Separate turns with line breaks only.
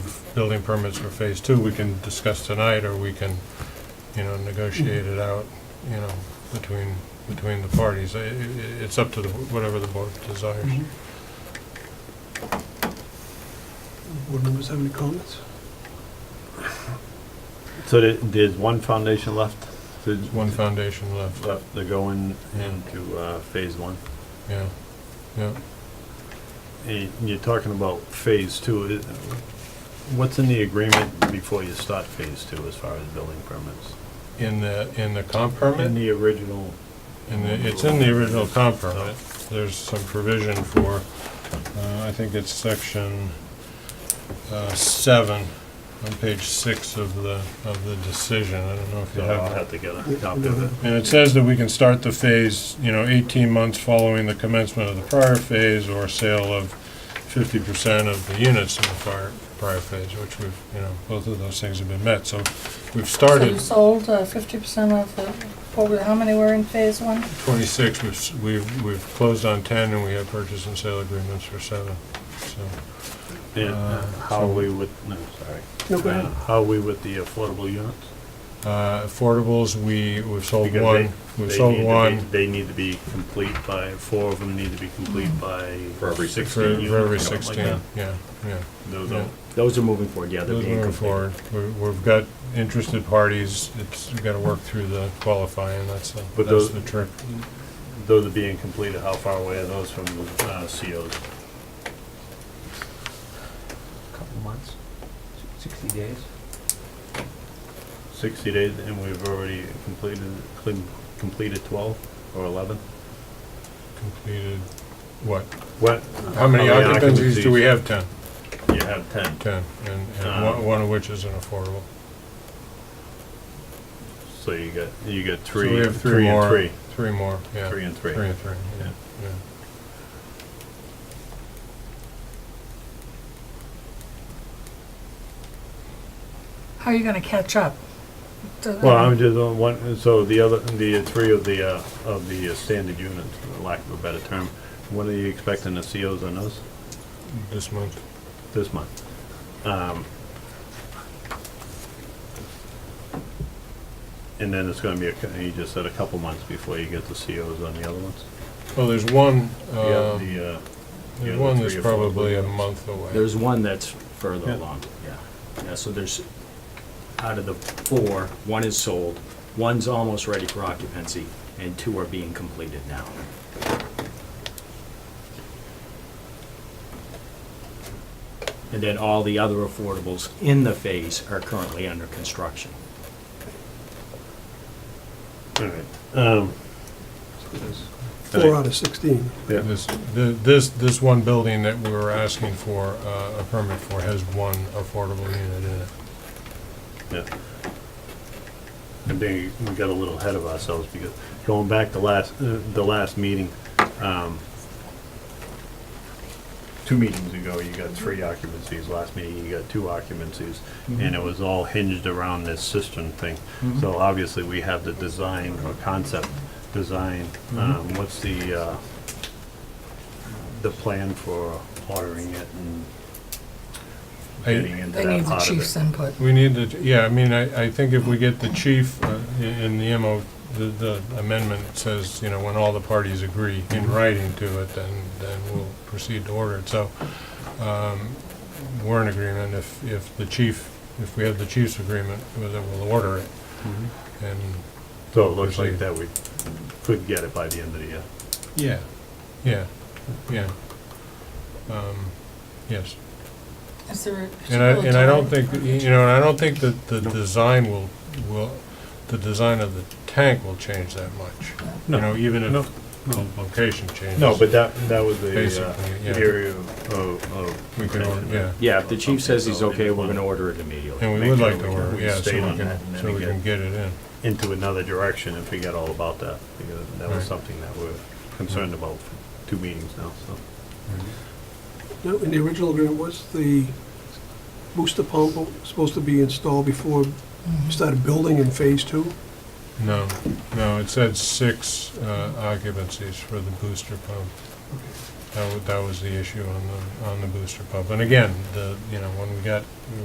building permits for phase two, we can discuss tonight, or we can, you know, negotiate it out, you know, between, between the parties. I- i- i- It's up to the whatever the board desires.
Board members have any comments?
So there- there's one foundation left? to-
There's One foundation left,
Left to go in
Yeah.
into uh, phase one?
yeah, yeah.
And you're talking about phase two. is- What's in the agreement before you start phase two as far as building permits?
In the, in the comp permit?
In the original,
And the- it's in the original comp permit, there's some provision for, uh, I think it's section uh, seven, on page six of the, of the decision, I don't know if you
so I'll
have that.
have to get a copy of it.
And it says that we can start the phase, you know, eighteen months following the commencement of the prior phase or sale of fifty percent of the units in the prior, prior phase, which we've, you know, both of those things have been met, so we've
So
started.
you sold uh, fifty percent of the, what were- how many were in phase one?
26, we've s- we've, we've closed on 10, and we have purchase and sale agreements for seven, so.
And uh, how are we with, no, sorry.
No, go
Uh,
ahead.
How are we with the affordable units?
uh, Affordables, we, we've sold
Because
one,
they-
we've
they
sold
need to be-
one.
They need to be complete by, four of them need to be complete by
For every
for-
16 units.
For every
something like
16,
that.
yeah, yeah.
Those
Yeah.
are
Those are moving forward, yeah, they're
Those
being
moving
completed.
forward, We- we've got interested parties, it's, we've got to work through the qualifying, that's, the-
But
that's
those-
the trick.
Those are being completed, how far away are those from the uh, COs?
Couple months, sixty days.
60 days, and we've already completed, clean- completed 12 or 11?
Completed, what,
What?
how many occupancies do we have? 10,
You have 10.
10, and, and
Uh,
one- one of which is an affordable.
So you got, you got
So
three,
we have three
three and
more.
three.
Three more, yeah.
Three and three.
Three and three, yeah,
Yeah.
yeah.
How are you gonna catch up? The-
Well, I'm just on one, so the other, the three of the, uh, of the uh, standard units, for lack of a better term, when are you expecting the COs on those?
This month.
This month? Um, And then it's gonna be, a cou- you just said a couple months before you get the COs on the other ones?
Well, there's one,
Yeah,
uh,
the, uh,
there's
yeah,
one
the
that's
three or four
probably a
balloons.
month away.
There's one that's further
Yeah.
along, yeah. Yeah, so there's, out of the four, one is sold, one's almost ready for occupancy, and two are being completed now. And then all the other affordables in the phase are currently under construction.
All right. Um,
Four out of 16.
yeah.
This, the- this, this one building that we were asking for uh, a permit for has one affordable unit in it.
Yeah. I think we got a little ahead of ourselves because going back to last, uh, the last meeting, um, two meetings ago, you got three occupancies. Last meeting, you got two occupancies.
Mm-hmm.
And it was all hinged around this cistern thing. So obviously, we have the design or concept design. Um, what's the, uh, the plan for ordering it and getting
I-
into
They
that
need the
part of
chief's
it?
input.
We need to, yeah, I mean, I, I think if we get the chief uh, i- in the MO, the- the amendment says, you know, when all the parties agree in writing to it, then, then we'll proceed to order it. So um, we're in agreement if, if the chief, if we have the chief's agreement, then we'll order it. And
So it looks like that we could get it by the end of the year.
Yeah, yeah, yeah. Um, Yes,
Is there a?
and I, and I don't
particular
think, that, you know, and I don't think that the design will, will, the design of the tank will change that much. You know, even
No.
if the location changes.
No, but that, that was the uh,
Basically, yeah.
area of, of.
We can, order- yeah,
Yeah, if the chief says
Okay,
he's
so
okay, we're
it's-
gonna order it immediately.
and we
Make
would
sure
like to
we can-
order,
we
yeah, so we
stay on
can,
that and then
so we
get-
can get it in.
Into another direction and forget all about that, because that
Right.
was something that we're concerned about for two meetings now, so.
No, in the original agreement was the booster pump was supposed to be installed before we started building in phase two.
No, no, it said six uh, occupancies for the booster pump. That was, that was the issue on the, on the booster pump. And again, the, you know, when we got,